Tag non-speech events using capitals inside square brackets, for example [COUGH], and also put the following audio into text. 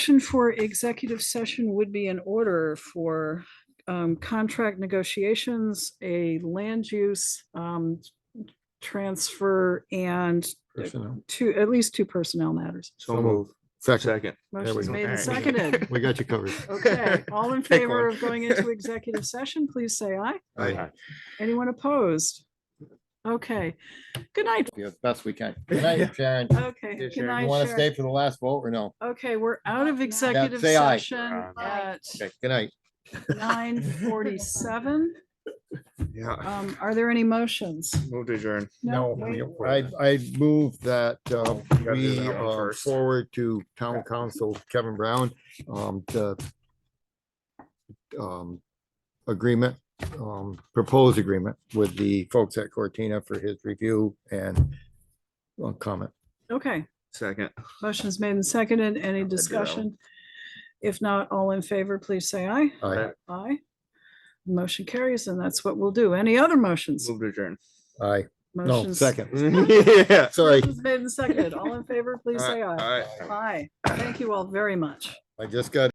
Motion for executive session would be in order for um, contract negotiations, a land use um, transfer, and Personnel. two, at least two personnel matters. So move. Second, Second. Motion's go. made All and right. [LAUGHS] seconded. we got you covered. Okay, all in Pick favor one. of going into [LAUGHS] executive session, please say aye. Aye. Anyone opposed? Okay, good night. Do the best we [LAUGHS] can. Good night, Sharon. Okay, Yeah, good Sharon, you night, wanna Sharon. for the last vote or no? Okay, we're out of executive say aye. session Aye. at good night. nine forty-seven. Yeah. Um, are there any motions? Move to adjourn. No, wait. I, I move that, uh, Oh, gotta do we, that one uh, first. forward to town council Kevin Brown, um, the um, agreement, um, proposed agreement with the folks at Cortina for his review and uh, comment. Okay, Second. motion's made and seconded. Any I'll do that discussion? If not, all in favor, please say aye. Aye, Aye. Motion carries and that's what we'll do. Any other motions? Move to [LAUGHS] adjourn. aye, no, Motions- second, Yeah. sorry, Motion's Made and seconded. All in favor, please say aye. All right. Aye. Thank you all very much. I just got